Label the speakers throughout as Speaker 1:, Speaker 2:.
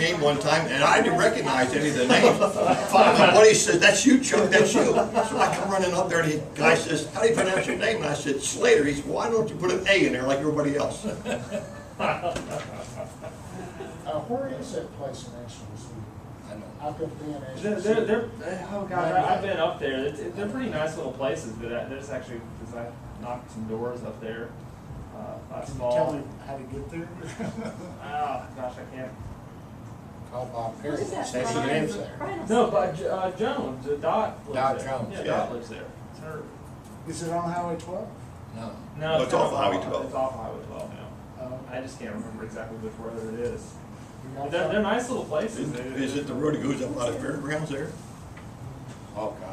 Speaker 1: meeting one time, and I didn't recognize any of the names. Finally, my buddy says, "That's you, Chuck, that's you." So I come running up there, and the guy says, "How do you pronounce your name?" And I said, "Slater." He said, "Why don't you put an A in there like everybody else?"
Speaker 2: Uh, where is that place in Exeter's?
Speaker 1: I know.
Speaker 2: I've been being Exeter's.
Speaker 3: They're, they're, they're- oh god, I- I've been up there. It's, they're pretty nice little places, but I, there's actually, cause I knocked some doors up there. Uh, last
Speaker 2: Can you tell
Speaker 3: fall.
Speaker 2: me how to get there?
Speaker 3: Oh, gosh, I can't.
Speaker 2: Call Bob
Speaker 4: What
Speaker 2: Perry,
Speaker 4: is that?
Speaker 2: says he
Speaker 4: Brian-
Speaker 2: lives there.
Speaker 4: Brian-
Speaker 3: No, but, J- uh, Jones, uh, Dot lives there.
Speaker 2: Dot Jones,
Speaker 3: Yeah,
Speaker 1: yeah.
Speaker 3: Dot lives there. It's her.
Speaker 2: Is it on Highway twelve?
Speaker 1: No.
Speaker 3: No,
Speaker 1: Oh, It's off
Speaker 3: not
Speaker 1: Highway 12.
Speaker 3: It's off Highway twelve now.
Speaker 2: Uh,
Speaker 3: I just can't remember exactly which road it is.
Speaker 2: you
Speaker 3: But
Speaker 2: got
Speaker 3: They're,
Speaker 2: that?
Speaker 3: they're nice little places.
Speaker 1: Is
Speaker 3: They-
Speaker 1: is it the road that goes up out of fairgrounds there?
Speaker 5: Oh, God,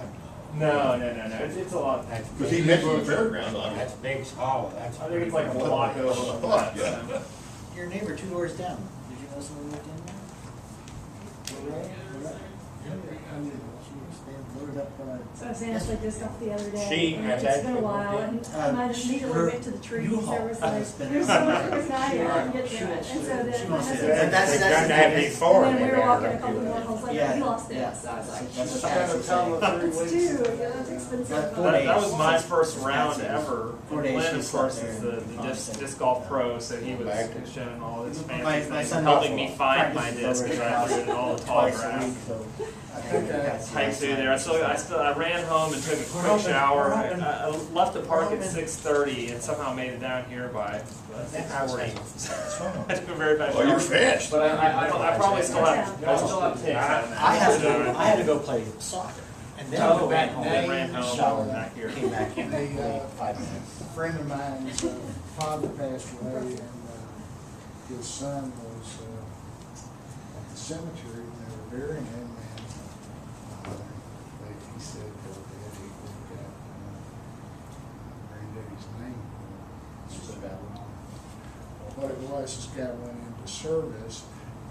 Speaker 3: No, no, no, no. It's, it's a lot.
Speaker 5: no. That's
Speaker 1: Because he
Speaker 5: big.
Speaker 1: mentioned the fairgrounds on it.
Speaker 5: That's Biggs Hollow, that's.
Speaker 3: I think it's like a
Speaker 1: What?
Speaker 3: block over. from that,
Speaker 1: Yeah.
Speaker 3: so.
Speaker 6: Your neighbor two doors down, did you know someone lived in there? I mean, She was they loaded up, uh,
Speaker 4: So I was saying, I played this off the other day.
Speaker 5: She-
Speaker 4: It's been a while, and I might have immediately
Speaker 6: her
Speaker 4: went to the trees,
Speaker 6: U-Haul.
Speaker 4: there was
Speaker 6: It's
Speaker 4: like,
Speaker 6: been-
Speaker 4: there's so much that was not here, I didn't get to
Speaker 6: She
Speaker 4: it. And
Speaker 6: wants-
Speaker 4: so then
Speaker 6: she
Speaker 4: my
Speaker 6: wants to-
Speaker 4: husband
Speaker 6: That's-
Speaker 4: was like,
Speaker 6: that's-
Speaker 5: They've
Speaker 4: "This is
Speaker 5: done
Speaker 6: that's-
Speaker 5: that
Speaker 6: that's-
Speaker 5: before.
Speaker 4: And then we
Speaker 5: they
Speaker 4: were
Speaker 5: never
Speaker 4: walking a couple
Speaker 5: do
Speaker 4: more
Speaker 5: that.
Speaker 4: holes, like,
Speaker 6: Yeah,
Speaker 4: we lost
Speaker 6: yeah.
Speaker 4: it, so I was like,
Speaker 6: That's
Speaker 2: She's
Speaker 6: a
Speaker 2: got a
Speaker 6: taxi
Speaker 2: total of three
Speaker 4: it's
Speaker 2: weeks.
Speaker 4: two, yeah, that's expensive.
Speaker 6: That's four
Speaker 3: That,
Speaker 6: days.
Speaker 3: that was my first round
Speaker 6: Expensive.
Speaker 3: ever.
Speaker 6: Four
Speaker 3: And
Speaker 6: days
Speaker 3: Glenn, of
Speaker 6: she's
Speaker 3: course,
Speaker 6: up there
Speaker 3: is the,
Speaker 6: and
Speaker 3: the disc,
Speaker 6: constant.
Speaker 3: disc golf pro, so he was
Speaker 5: Back.
Speaker 3: showing all his
Speaker 6: My-
Speaker 3: fancy
Speaker 6: my
Speaker 3: things,
Speaker 6: son
Speaker 3: helping me
Speaker 6: Russell
Speaker 3: find my
Speaker 6: practices
Speaker 3: disc
Speaker 6: over
Speaker 3: because
Speaker 6: at
Speaker 3: I
Speaker 6: his
Speaker 3: threw it in all
Speaker 6: house
Speaker 3: the
Speaker 6: twice a
Speaker 3: autographs.
Speaker 6: week, so
Speaker 2: I
Speaker 6: and
Speaker 2: think
Speaker 6: we
Speaker 2: I-
Speaker 6: got to
Speaker 3: Typed through
Speaker 6: last
Speaker 3: there. I
Speaker 6: night.
Speaker 3: still, I still, I ran home and took a
Speaker 6: We're
Speaker 3: quick
Speaker 6: hoping-
Speaker 3: shower.
Speaker 6: we're
Speaker 3: I,
Speaker 6: hoping-
Speaker 3: I left the park at
Speaker 6: hoping-
Speaker 3: six thirty and somehow made it down here by uh, six forty. I took a very bad
Speaker 1: Oh, you're
Speaker 3: shower.
Speaker 1: fast.
Speaker 3: But I, I, I don't- I probably still have, I still have ticks. on that.
Speaker 6: I had to go, I had to go play soccer, and then I
Speaker 3: Oh,
Speaker 6: went
Speaker 3: ran
Speaker 6: back
Speaker 3: home,
Speaker 6: home,
Speaker 3: then ran home,
Speaker 6: showered,
Speaker 3: back here.
Speaker 6: came back here,
Speaker 2: The, uh,
Speaker 6: played five minutes.
Speaker 2: A friend of mine's uh, father passed away and uh, his son was uh, at the cemetery and they were burying him and uh, they- he said "Oh, that he looked at uh, granddaddy's name. It's about, well, What it was, this guy went into service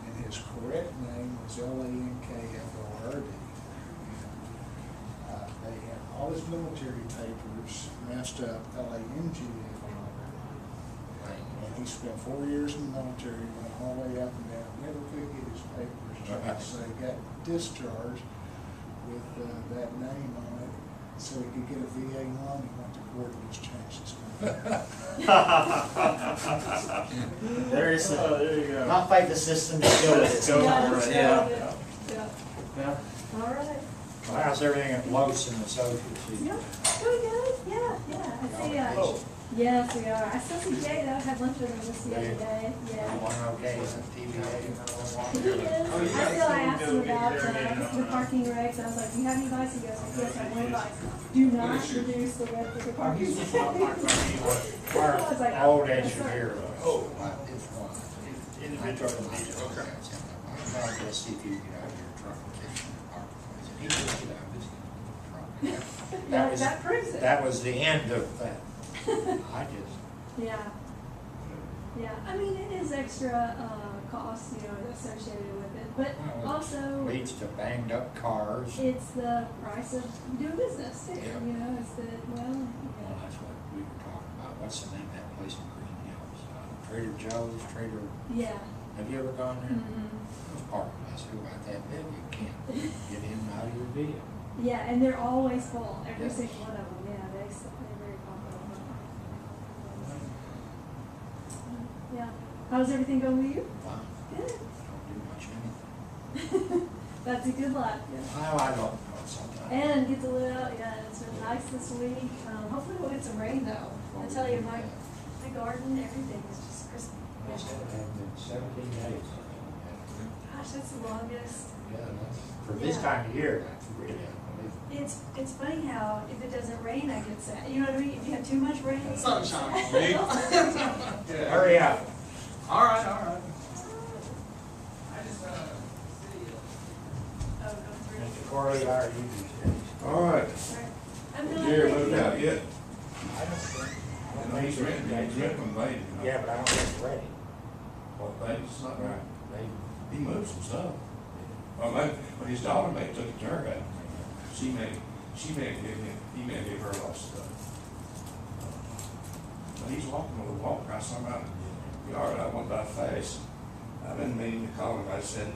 Speaker 2: and his correct name was L A N K F O R D. Uh, They had all his military papers messed up, L A N G A. And he spent four years in the military, went all the way up and down, never could get his papers, so he got discharged with uh, that name on it, so he could get a VA loan, he went to court and just changed his name.
Speaker 6: There is
Speaker 3: Oh,
Speaker 6: a,
Speaker 3: there you go.
Speaker 6: not fight the system, just go with it
Speaker 3: Go
Speaker 4: Yeah,
Speaker 3: for
Speaker 6: sometimes,
Speaker 3: it.
Speaker 6: yeah.
Speaker 4: yeah, yeah.
Speaker 6: Yeah.
Speaker 4: All right.
Speaker 5: Well, How's everything at Los and the social
Speaker 4: Yeah,
Speaker 5: scene?
Speaker 4: doing good, yeah, yeah. I see,
Speaker 6: Oh.
Speaker 4: uh, yes, we are. I still see Jay though, I had lunch with him just the other day, yeah.
Speaker 5: One okay, some TVA.
Speaker 4: He is, I
Speaker 3: Oh, yeah.
Speaker 4: still, I asked him
Speaker 3: Go get
Speaker 4: about
Speaker 3: there and,
Speaker 4: uh, the
Speaker 3: uh,
Speaker 4: parking regs, I was like, do you have any advice? He goes, like, yes, I have one advice. Do not reduce the width of the parking. regs." I was like,
Speaker 5: Our Old
Speaker 4: "Yes,
Speaker 5: engineer.
Speaker 4: sir."
Speaker 5: Oh, it's one.
Speaker 3: Individual.
Speaker 5: Okay. I'm trying to see if you can get out of your truck and kick in the park. If he can get out of his truck. That
Speaker 4: That,
Speaker 5: was,
Speaker 4: that proves it.
Speaker 5: that was the end of that. I just.
Speaker 4: Yeah. Yeah, I mean, it is extra, uh, cost, you know, associated with it, but
Speaker 5: Well,
Speaker 4: also
Speaker 5: leads to banged up cars. Well,
Speaker 4: it's the price of doing business too,
Speaker 5: Yeah.
Speaker 4: you know, it's the, well, you know.
Speaker 5: that's what we were talking about. What's the name of that place in Green Hills? Uh, Trader Joe's, Trader,
Speaker 4: Yeah.
Speaker 5: have you ever gone there?
Speaker 4: Mhm.
Speaker 5: Those parking lots are about that big. You can't get in and out of your vehicle.
Speaker 4: Yeah, and they're always full, every
Speaker 5: Yeah.
Speaker 4: single one of them, yeah, they, s- they're very popular. Yeah, how's everything going with you?
Speaker 5: Fine,
Speaker 4: Good.
Speaker 5: don't do much anything.
Speaker 4: That's a good life, yeah.
Speaker 5: Well, I don't know sometimes.
Speaker 4: And get to live out, yeah, it's been nice this week, um, hopefully we'll get some rain though. I tell you, my, my garden, everything is just crisp.
Speaker 5: And Seventeen days.
Speaker 4: Gosh, that's the longest.
Speaker 5: Yeah, that's, for this
Speaker 4: Yeah.
Speaker 5: time of year, that's really unbelievable.
Speaker 4: It's, it's funny how if it doesn't rain, I get sad, you know what I mean? If you have too much rain.
Speaker 7: Sunshine.
Speaker 5: Hurry up.
Speaker 7: All right, all right.
Speaker 4: Oh, no, it's really-
Speaker 5: Mr. Corley, how are you these days?
Speaker 8: All right,
Speaker 4: sorry. I'm not.
Speaker 8: Jerry moved out yet.
Speaker 5: I don't think. I
Speaker 8: You
Speaker 5: don't
Speaker 8: know,
Speaker 5: think
Speaker 8: he's
Speaker 5: it's
Speaker 8: renting,
Speaker 5: ready.
Speaker 8: he's renting them late. you know.
Speaker 5: Yeah, but I don't think it's ready.
Speaker 8: Well, things, not right.
Speaker 5: They-
Speaker 8: He moved some stuff. Well, my, well, his daughter may took a turn out. She may, she may give him, he may give her a lot of stuff. But he's walking with a walker. I saw him out in the yard. I went by fast. I didn't mean to call him. I said,